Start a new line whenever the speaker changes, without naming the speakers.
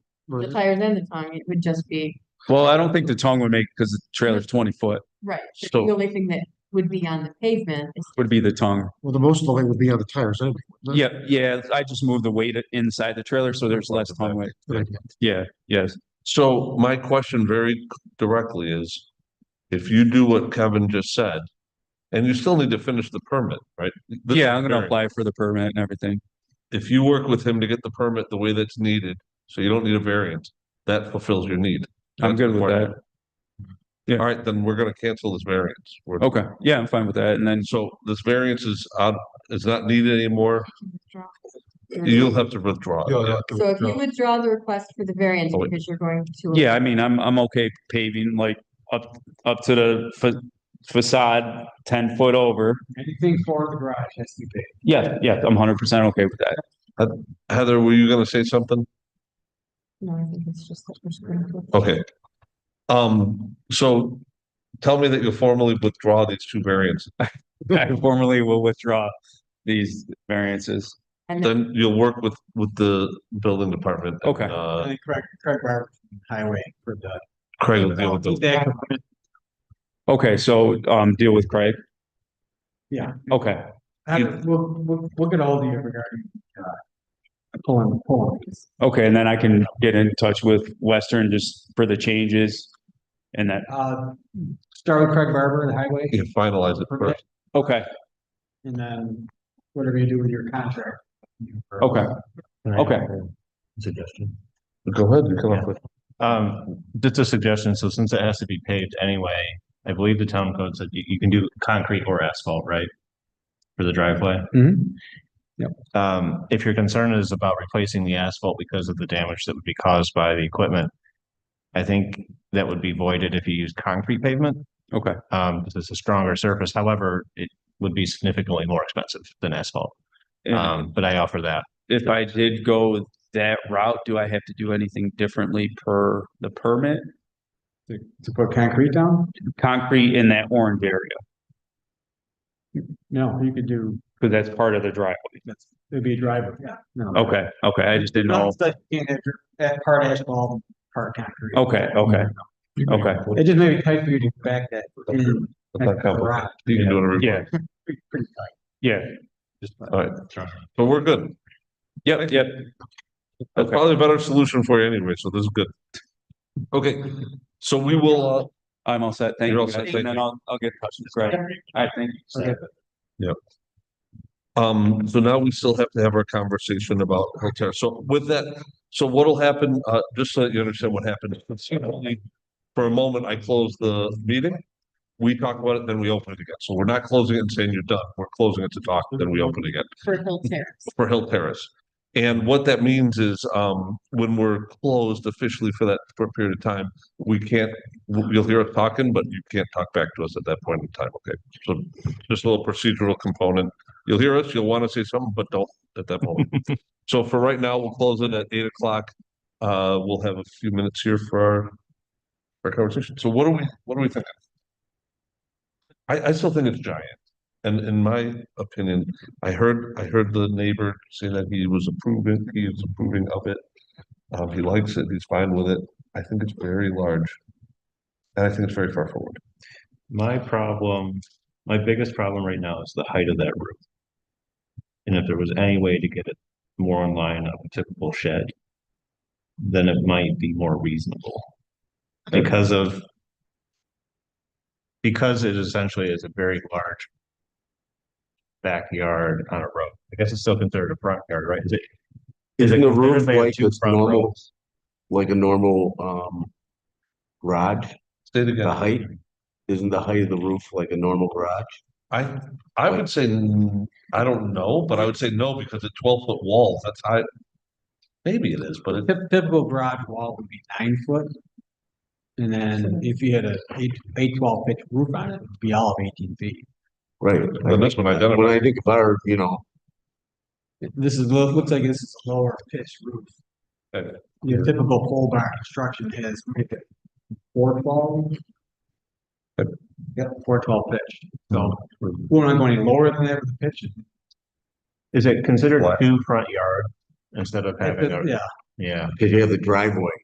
Right.
the tires and the tongue, it would just be,
Well, I don't think the tongue would make, because the trailer's twenty foot,
right, the
So-
only thing that would be on the pavement is,
would be the tongue.
Well, the most of the weight would be on the tires anyway. wouldn't it?
Yeah, yeah, I just moved the weight inside the trailer, so there's less tongue weight.
Good idea.
Yeah, yes,
So my question very directly is, if you do what Kevin just said, and you still need to finish the permit, right? This
yeah,
is
I'm gonna
very-
apply for the permit and everything.
If you work with him to get the permit the way that's needed, so you don't need a variance, that fulfills your need.
I'm good with that. Yeah.
All right, then we're gonna cancel this variance. We're-
Okay, yeah, I'm fine with that, and then,
So this variance is out, is not needed anymore.
Mm-hmm.
You'll have to withdraw. it,
Yeah,
yeah.
yeah,
so if you
yeah.
withdraw the request for the variance
Oh, wait.
because you're going to.
yeah, I mean, I'm, I'm okay paving like up, up to the fa- facade, ten foot over.
Anything for the garage has to be paid.
Yeah, yeah, I'm hundred percent okay with that.
Heather, were you gonna say something?
No, I think it's just that we're just going to.
Okay. Um, so tell me that you'll formally withdraw these two variants.
I formally will withdraw these variances.
And then,
Then you'll work with, with the building department. and,
Okay.
I
Uh,
think Craig, Craig Barber, Highway for the. um,
Craig will deal with those.
That-
Okay, so, um, deal with Craig,
Yeah.
okay.
I don't- We'll, we'll, we'll get all the regarding. uh, Pulling, pulling.
Okay, and then I can get in touch with Western just for the changes. And that,
Uh, start with Craig Barber and Highway.
You can finalize it first.
okay,
And then whatever you do with your contract.
okay, okay.
Suggestion.
Go ahead, you come up with.
Um, just a suggestion. So since it has to be paved anyway, I believe the town code said you, you can do concrete or asphalt, right? For the driveway.
Mhm. Yep.
Um, if your concern is about replacing the asphalt because of the damage that would be caused by the equipment, I think that would be voided if you use concrete pavement.
Okay.
Um, because it's a stronger surface. However, it would be significantly more expensive than asphalt.
And
Um, but I offer that.
if I did go that route, do I have to do anything differently per the permit?
To put concrete down?
Concrete in that orange area,
No, you could do,
because that's part of the driveway.
it'd be a driveway, yeah. No.
Okay, okay, I just didn't know.
Not that you can't have your- That part asphalt, part concrete.
Okay, okay, okay,
It just may be tight for you to back that. in,
That's
back
not
the
complicated.
garage,
You can do it. every-
Mm-hmm. yeah,
pretty- pretty tight.
yeah,
All right. So we're good.
yep, yep.
That's
Okay.
probably a better solution for you anyway, so this is good. Okay, so we will, uh,
I'm all set, thank
You're
you.
all set,
guys,
thank
And then
you.
I'll, I'll get in touch with Craig. I think,
Um, so now we still have to have our conversation about hotel. So with that, so what'll happen, uh, just so that you understand what happened. For a moment, I closed the meeting. We talk about it, then we open it again. So we're not closing it and saying you're done. We're closing it to talk, then we open again
for Hill Terrace.
for Hill Terrace. And what that means is, um, when we're closed officially for that short period of time, we can't, you'll hear us talking, but you can't talk back to us at that point in time, okay? So just a little procedural component. You'll hear us, you'll want to say something, but don't at that moment. So for right now, we'll close it at eight o'clock. Uh, we'll have a few minutes here for our, our conversation. So what are we, what are we thinking? I, I still think it's giant. And in my opinion, I heard, I heard the neighbor say that he was approving, he is approving of it. Um, he likes it, he's fine with it. I think it's very large. And I think it's very far forward.
My problem, my biggest problem right now is the height of that roof. And if there was any way to get it more in line of a typical shed, then it might be more reasonable. Because of because it essentially is a very large backyard on a road. I guess it's still considered a front yard, right? Is it? is it
Isn't the
considered
roof
they have
like
two
it's
front
normal?
rows?
like a normal um garage,
Say it again.
the height? Isn't the height of the roof like a normal garage?
I, I would say, n- I don't know, but I would say no, because a twelve foot wall, that's high. Maybe it is, but it,
Typ- Typical garage wall would be nine foot. And then if you had a eight, eight twelve pitch roof on it, it'd be all of eighteen feet.
Right.
Well, that's what I done it
When I think of our, you know,
This is, lo- looks like this is a lower pitch roof.
Okay.
Your typical pole barn construction has maybe four twelve. Yep, four twelve pitch, so we're not going any lower than that with the pitch.
Is it considered
What?
two front yard instead of having a,
Yeah,
yeah,
because you have the driveway,